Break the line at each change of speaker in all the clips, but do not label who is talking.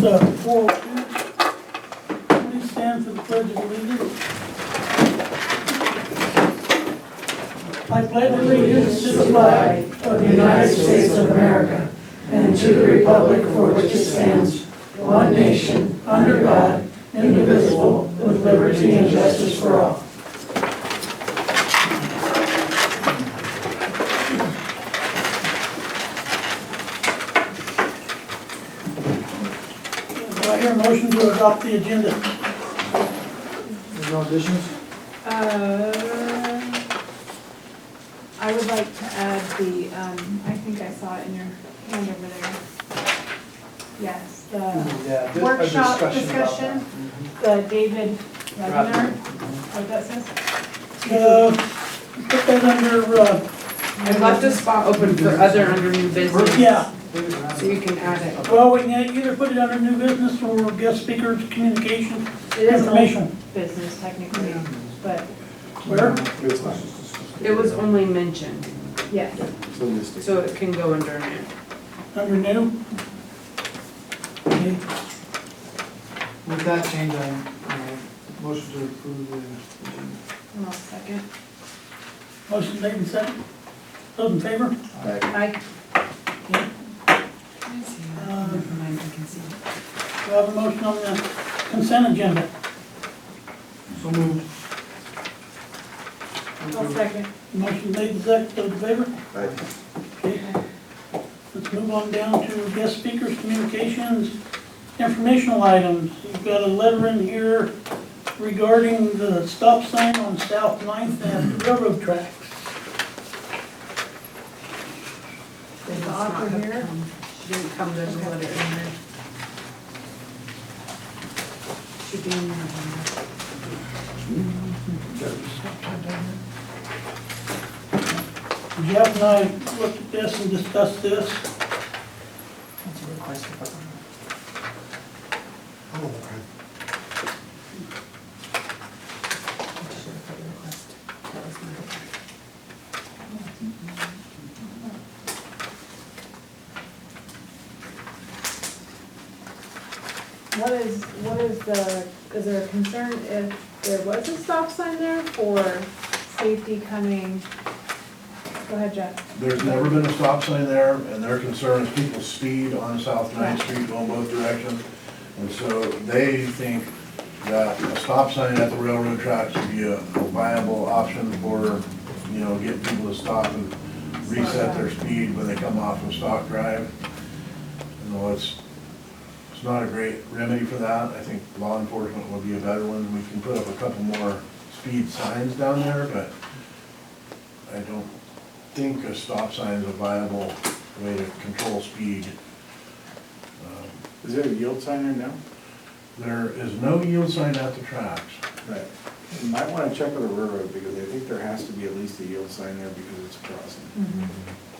Uh, four, please stand for the pledge of allegiance. I pledge allegiance to the flag
of the United States of America and to the republic for which it stands, one nation, under God, indivisible, with liberty and justice for all.
Do I hear a motion to adopt the agenda?
There's no additions?
Uh, I would like to add the, um, I think I saw it in your hand over there. Yes, the,
Yeah,
Mm-hmm. a Workshop discussion about Mm-hmm. discussion? the David Revner, what that says?
Uh, Put that under, uh,
I left a spot open for other under new business.
yeah,
So you can add it.
well, we can either put it under new business or guest speakers, communication,
It is old
information.
business technically, but,
Where?
It's fine.
It was only mentioned,
yeah.
It's on this thing.
so it can go under new.
Under new? Okay.
With that change, I, uh, motion to approve the agenda.
One more second.
Motion made and second. Those in favor?
I,
Uh,
Never mind, I can see.
We have a motion on the consent agenda.
So moved.
one second.
Motion made and seconded, those in favor?
Aye.
Okay. Let's move on down to guest speakers, communications, informational items. You've got a letter in here regarding the stop sign on South Ninth and Railroad Tracks.
Is the author here?
She didn't come, there's a letter in there. Should be in your hand.
Jeff and I looked at this and discussed this.
That's a good question.
What is, what is the, is there a concern if there was a stop sign there for safety coming? Go ahead, Jeff.
There's never been a stop sign there, and their concern is people speed on South Ninth Street going both directions. And so they think that a stop sign at the railroad tracks would be a viable option for, you know, getting people to stop and reset their speed when they come off of Stock Drive. You know, it's, it's not a great remedy for that. I think law enforcement would be a better one. We can put up a couple more speed signs down there, but I don't think a stop sign is a viable way to control speed. Um,
Is there a yield sign there now?
There is no yield sign at the tracks.
Right. You might wanna check with the railroad, because I think there has to be at least a yield sign there because it's a crossing.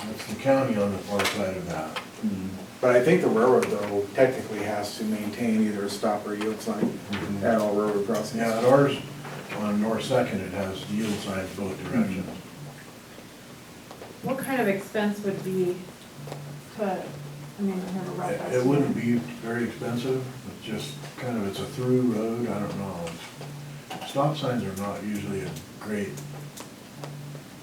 That's the county on the far side of that.
But I think the railroad though technically has to maintain either a stop or yield sign Mm-hmm. at all railroad crossings.
Yeah, at ours, on North Second, it has yield signs both directions.
What kind of expense would be to, I mean, I have a rough
It
estimate.
it wouldn't be very expensive, it's just kind of, it's a through road, I don't know. Stop signs are not usually a great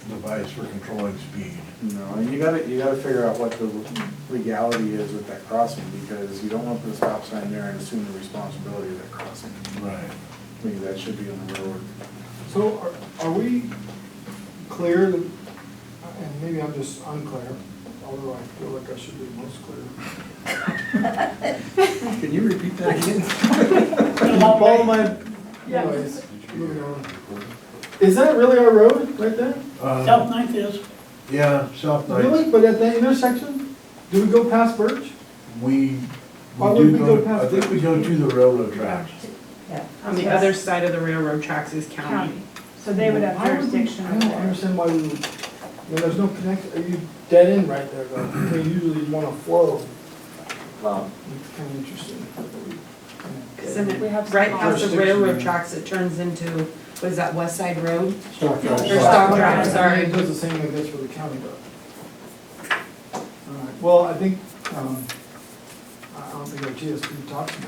device for controlling speed.
No, and you gotta, you gotta figure out what the legality is with that crossing, because you don't wanna put a stop sign there and assume the responsibility of that crossing.
Right.
I think that should be on the railroad.
So are- are we clear, that- and maybe I'm just unclear, although I feel like I should be most clear.
Can you repeat that again?
All my,
Yeah.
anyways, moving on. Is that really our road right there?
Uh,
South Ninth is,
Yeah, South Ninth,
Really? But at that intersection? Do we go past Birch?
we,
Why
we
would
do
we
go,
go
to- I
past
think we go to the railroad tracks.
On the other side of the railroad tracks is county.
County, so they would have
Why we-
jurisdiction
I don't
over it.
understand why we, would- I mean, there's no connect, are you dead end right there though? They usually want to flow.
Well,
It's kind of interesting.
Cause then
We have
it,
some
right past the
jurisdiction
railroad
there.
tracks, it turns into, what is that, West Side Road?
Stop
Or Stock Drive, sorry.
It does the same like this for the county though. All right, well, I think, um, I- I'm don't think our TSP talks about